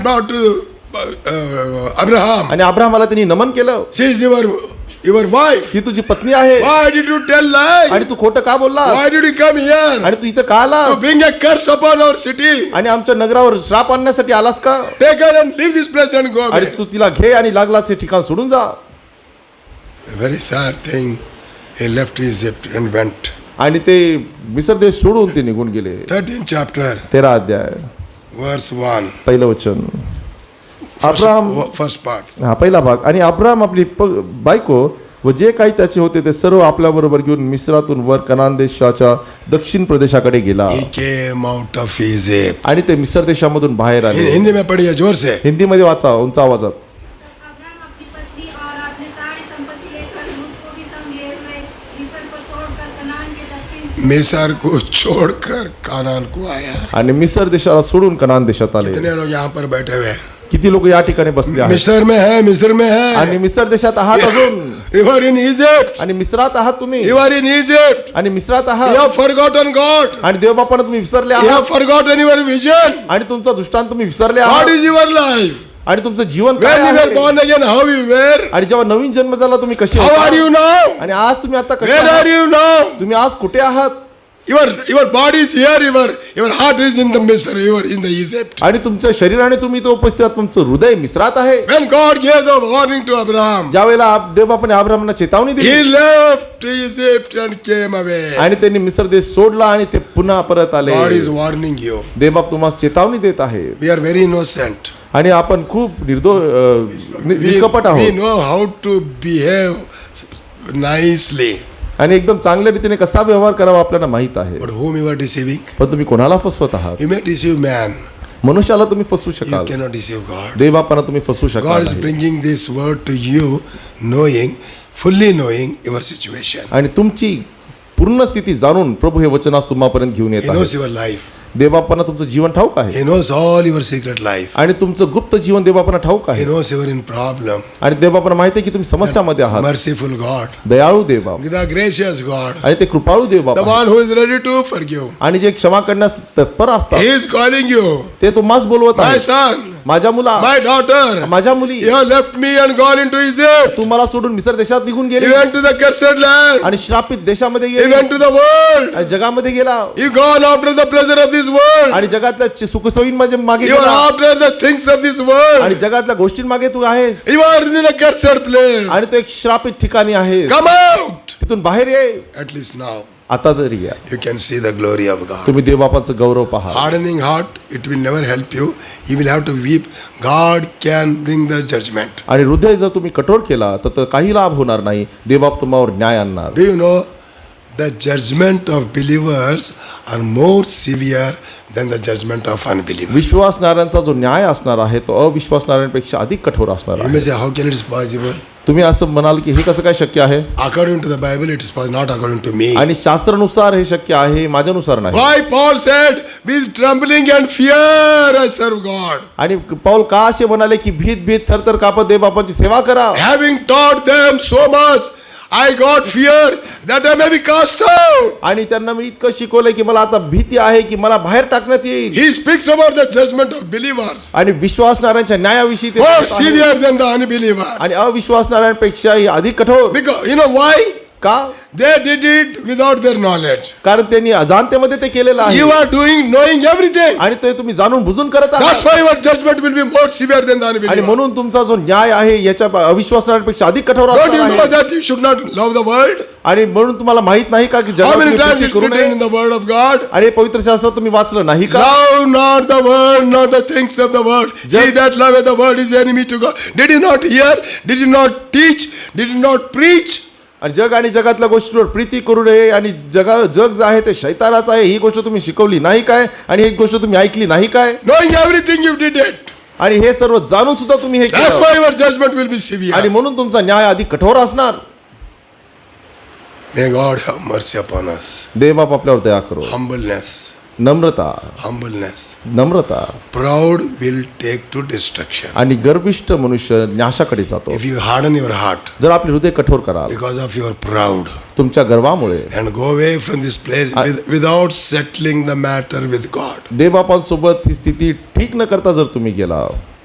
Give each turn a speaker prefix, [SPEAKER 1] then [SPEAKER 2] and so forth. [SPEAKER 1] about uh, uh, Abraham.
[SPEAKER 2] आणि अब्राहमाला त्यांनी नमन केलं
[SPEAKER 1] She is your your wife.
[SPEAKER 2] ही तुझी पत्नी आहे
[SPEAKER 1] Why did you tell lie?
[SPEAKER 2] आणि तू खोटं का बोलला
[SPEAKER 1] Why did you come here?
[SPEAKER 2] आणि तू इथं का
[SPEAKER 1] To
[SPEAKER 2] आलास
[SPEAKER 1] bring a curse upon our city.
[SPEAKER 2] आणि आमच्या नगरावर श्राप आणण्यासाठी आलास का
[SPEAKER 1] Take her and leave this place and go
[SPEAKER 2] आणि
[SPEAKER 1] away.
[SPEAKER 2] तू तिला घे आणि लागलास हे ठिकाण सोडून जा
[SPEAKER 1] A very sad thing. He left Egypt and went.
[SPEAKER 2] आणि ते मिसर देश सोडून ते निघून गेले
[SPEAKER 1] 13th chapter,
[SPEAKER 2] तेरा अध्याय
[SPEAKER 1] verse 1.
[SPEAKER 2] पहिलं वचन
[SPEAKER 1] First,
[SPEAKER 2] Abraham
[SPEAKER 1] wo- first part.
[SPEAKER 2] हा पहिला भाग आणि अब्राम आपली प- बायको व जे काही त्याचे होते ते सर्व आपल्याबरोबर घेऊन मिस्रातून वर कनान देशाच्या दक्षिण प्रदेशाकडे गेला
[SPEAKER 1] He came out of Egypt.
[SPEAKER 2] आणि ते मिसर देशामधून बाहेर
[SPEAKER 1] हि-
[SPEAKER 2] आले
[SPEAKER 1] हिंदी में पढ़िए जोर से
[SPEAKER 2] हिंदीमध्ये वाचा उंच आवाजात
[SPEAKER 3] तब अब्राहम अपनी पत्नी और अपने सारी संपत्ति लेकर लूत को भी संग लिए हुए मिस्र को छोड़कर कनान के दक्षिण
[SPEAKER 1] मिसर को छोड़कर कानान को आया
[SPEAKER 2] आणि मिसर देशाला सोडून कनान देशात आले
[SPEAKER 1] कितने लोग यहाँ पर बैठे हुए हैं
[SPEAKER 2] किती लोक या ठिकाणी बसले आहेत
[SPEAKER 1] मिस्र में है मिस्र में
[SPEAKER 2] आणि
[SPEAKER 1] है
[SPEAKER 2] मिसर देशात आहात अजून
[SPEAKER 1] You are in Egypt.
[SPEAKER 2] आणि मिसरात आहात तुम्ही
[SPEAKER 1] You are in Egypt.
[SPEAKER 2] आणि मिसरात
[SPEAKER 1] You
[SPEAKER 2] आहात
[SPEAKER 1] have forgotten God.
[SPEAKER 2] आणि देवबापांना तुम्ही विसरले
[SPEAKER 1] You
[SPEAKER 2] आहात
[SPEAKER 1] have forgotten your vision.
[SPEAKER 2] आणि तुमचा दृष्टांत तुम्ही विसरले
[SPEAKER 1] What
[SPEAKER 2] आहात
[SPEAKER 1] is your life?
[SPEAKER 2] आणि तुमचं जीवन काय
[SPEAKER 1] When you were
[SPEAKER 2] आहे?
[SPEAKER 1] born again, how you were?
[SPEAKER 2] आणि जेव्हा नवीन जन्म झाला तुम्ही कसे
[SPEAKER 1] How are
[SPEAKER 2] होता?
[SPEAKER 1] you now?
[SPEAKER 2] आणि आज तुम्ही आता कसे
[SPEAKER 1] Where
[SPEAKER 2] आहात?
[SPEAKER 1] are you now?
[SPEAKER 2] तुम्ही आज कुठे आहात
[SPEAKER 1] Your your body is here. Your your heart is in the Misr. You are in the Egypt.
[SPEAKER 2] आणि तुमच्या शरीराने तुम्ही इथे उपस्थित आहात तुमचं हृदय मिसरात आहे
[SPEAKER 1] When God gave the warning to Abraham,
[SPEAKER 2] ज्या वेळेला आप- देवबापाने आब्रामना चेतावणी
[SPEAKER 1] he
[SPEAKER 2] दिली
[SPEAKER 1] left Egypt and came away.
[SPEAKER 2] आणि त्यांनी मिसर देश सोडला आणि ते पुन्हा परत आले
[SPEAKER 1] God is warning you.
[SPEAKER 2] देवबाप तुम्हाला चेतावणी देत आहे
[SPEAKER 1] We are very innocent.
[SPEAKER 2] आणि आपण खूप निर्दो अ, नि-
[SPEAKER 1] We,
[SPEAKER 2] निष्कपट
[SPEAKER 1] we
[SPEAKER 2] आहोत
[SPEAKER 1] know how to behave nicely.
[SPEAKER 2] आणि एकदम चांगल्या रीतीने कसा व्यवहार करावा आपल्याला माहित आहे
[SPEAKER 1] But whom you are deceiving?
[SPEAKER 2] पण तुम्ही कोणाला फसवत आहात
[SPEAKER 1] You may deceive man.
[SPEAKER 2] मनुष्याला तुम्ही फसवू
[SPEAKER 1] You
[SPEAKER 2] शकाल
[SPEAKER 1] cannot deceive God.
[SPEAKER 2] देवबापांना तुम्ही फसवू
[SPEAKER 1] God
[SPEAKER 2] शकाल
[SPEAKER 1] is
[SPEAKER 2] नाही.
[SPEAKER 1] bringing this word to you, knowing, fully knowing your situation.
[SPEAKER 2] आणि तुमची पूर्ण स्थिती जाणून प्रभू हे वचनास तुम्हापर्यंत घेऊन येत
[SPEAKER 1] He
[SPEAKER 2] आहे
[SPEAKER 1] knows your life.
[SPEAKER 2] देवबापांना तुमचं जीवन ठाऊक आहे
[SPEAKER 1] He knows all your secret life.
[SPEAKER 2] आणि तुमचं गुप्त जीवन देवबापांना ठाऊक
[SPEAKER 1] He
[SPEAKER 2] आहे
[SPEAKER 1] knows you are in problem.
[SPEAKER 2] आणि देवबापांना माहिती आहे की तुम्ही समस्यामध्ये आहात
[SPEAKER 1] Merciful God.
[SPEAKER 2] दयाळू देवबाप
[SPEAKER 1] The gracious God.
[SPEAKER 2] आणि ते कृपाळू देवबाप
[SPEAKER 1] The
[SPEAKER 2] आहे.
[SPEAKER 1] one who is ready to forgive.
[SPEAKER 2] आणि जे क्षमा करण्यास तत्पर
[SPEAKER 1] He
[SPEAKER 2] असतात
[SPEAKER 1] is calling you.
[SPEAKER 2] ते तुम्हाच बोलवत
[SPEAKER 1] My
[SPEAKER 2] आहे
[SPEAKER 1] son.
[SPEAKER 2] माझ्या मुला
[SPEAKER 1] My daughter.
[SPEAKER 2] माझ्या मुली
[SPEAKER 1] You have left me and gone into Egypt.
[SPEAKER 2] तू मला सोडून मिसर देशात निघून
[SPEAKER 1] You
[SPEAKER 2] गेली
[SPEAKER 1] went to the cursed land.
[SPEAKER 2] आणि श्रापित देशामध्ये
[SPEAKER 1] You
[SPEAKER 2] गेली
[SPEAKER 1] went to the world.
[SPEAKER 2] आणि जगामध्ये गेला
[SPEAKER 1] You gone after the pleasure of this world.
[SPEAKER 2] आणि जगातल्या सुखसोयी माझे मागे
[SPEAKER 1] You
[SPEAKER 2] गेला.
[SPEAKER 1] are after the things of this
[SPEAKER 2] आणि
[SPEAKER 1] world.
[SPEAKER 2] जगातल्या गोष्टी मागे तू आहेस
[SPEAKER 1] You are in a cursed
[SPEAKER 2] आणि
[SPEAKER 1] place.
[SPEAKER 2] तू एक श्रापित ठिकाणी आहे
[SPEAKER 1] Come out.
[SPEAKER 2] तिथून बाहेर ये
[SPEAKER 1] At least now
[SPEAKER 2] आता तरी या
[SPEAKER 1] you can see the glory of God.
[SPEAKER 2] तुम्ही देवबापांचं गौरव पहा
[SPEAKER 1] Hardening heart, it will never help you. You will have to weep. God can bring the judgment.
[SPEAKER 2] आणि हृदय जर तुम्ही कठोर केला तर तर काही लाभ होणार नाही देवबाप तुम्हावर न्याय आणणार
[SPEAKER 1] Do you know the judgment of believers are more severe than the judgment of unbelievers?
[SPEAKER 2] विश्वासणाऱ्यांचा जो न्याय असणार आहे तो अविश्वासणाऱ्यांपेक्षा अधिक कठोर असणार
[SPEAKER 1] You
[SPEAKER 2] आहे
[SPEAKER 1] may say, how can it is possible?
[SPEAKER 2] तुम्ही असं म्हणाल की हे कसं काय शक्य आहे
[SPEAKER 1] According to the Bible, it is possible, not according to me.
[SPEAKER 2] आणि शास्त्रानुसार हे शक्य आहे माझ्यानुसार नाही
[SPEAKER 1] Why Paul said, with trembling and fear I serve God,
[SPEAKER 2] आणि पाऊल का असे म्हणाले की भीत भीत थरथर कापत देवबापांची सेवा करा
[SPEAKER 1] having taught them so much, I got fear that I may be cast out.
[SPEAKER 2] आणि त्यांना मी इतकं शिकवलंय की मला आता भीती आहे की मला बाहेर टाकण्यात येईल
[SPEAKER 1] He speaks about the judgment of believers,
[SPEAKER 2] आणि विश्वासणाऱ्यांच्या न्यायाविषयी ते
[SPEAKER 1] more
[SPEAKER 2] सांगत आहे.
[SPEAKER 1] severe than the unbelievers.
[SPEAKER 2] आणि अविश्वासणाऱ्यांपेक्षाही अधिक कठोर
[SPEAKER 1] Because you know why?
[SPEAKER 2] का
[SPEAKER 1] They did it without their knowledge.
[SPEAKER 2] कारण त्यांनी अजाणतेमध्ये ते केलेलं
[SPEAKER 1] You
[SPEAKER 2] आहे
[SPEAKER 1] are doing knowing everything.
[SPEAKER 2] आणि ते तुम्ही जाणून बुजून करत
[SPEAKER 1] That's
[SPEAKER 2] आहात
[SPEAKER 1] why your judgment will be more severe than the
[SPEAKER 2] आणि
[SPEAKER 1] unbeliever.
[SPEAKER 2] म्हणून तुमचा जो न्याय आहे याच्या अविश्वासणाऱ्यांपेक्षा अधिक कठोर
[SPEAKER 1] Don't
[SPEAKER 2] असणार
[SPEAKER 1] you know
[SPEAKER 2] आहे
[SPEAKER 1] that you should not love the world?
[SPEAKER 2] आणि म्हणून तुम्हाला माहित नाही का की
[SPEAKER 1] How
[SPEAKER 2] जगात
[SPEAKER 1] many
[SPEAKER 2] तुम्ही
[SPEAKER 1] times
[SPEAKER 2] प्रीती
[SPEAKER 1] it's
[SPEAKER 2] करू
[SPEAKER 1] written
[SPEAKER 2] नये
[SPEAKER 1] in the word of God?
[SPEAKER 2] आणि पवित्र शास्त्र तुम्ही वाचलं नाही का
[SPEAKER 1] Love not the world, not the things of the world.
[SPEAKER 2] Just-
[SPEAKER 1] he that loveth the world is enemy to God. Did you not hear? Did you not teach? Did you not preach?
[SPEAKER 2] आणि जग आणि जगातल्या गोष्टीवर प्रीती करू नये आणि जगा जग जे आहे ते शैतानाचं आहे ही गोष्ट तुम्ही शिकवली नाही काय आणि ही गोष्ट तुम्ही ऐकली नाही काय
[SPEAKER 1] Knowing everything you did it.
[SPEAKER 2] आणि हे सर्व जाणून सुद्धा तुम्ही हे
[SPEAKER 1] That's
[SPEAKER 2] केलं
[SPEAKER 1] why your judgment will be severe.
[SPEAKER 2] आणि म्हणून तुमचा न्याय अधिक कठोर असणार
[SPEAKER 1] May God have mercy upon us.
[SPEAKER 2] देवबाप आपल्यावर दया करो
[SPEAKER 1] Humbleness.
[SPEAKER 2] Namrata
[SPEAKER 1] Humbleness.
[SPEAKER 2] Namrata
[SPEAKER 1] Proud will take to destruction.
[SPEAKER 2] आणि गर्विष्ठ मनुष्य नाशाकडे जातो
[SPEAKER 1] If you harden your heart
[SPEAKER 2] जर आपले हृदय कठोर कराल
[SPEAKER 1] because of your proud
[SPEAKER 2] तुमच्या गर्वामुळे
[SPEAKER 1] and go away from this place
[SPEAKER 2] I-
[SPEAKER 1] with, without settling the matter with God.
[SPEAKER 2] देवबापांसोबत ही स्थिती ठीक न करता जर तुम्ही गेला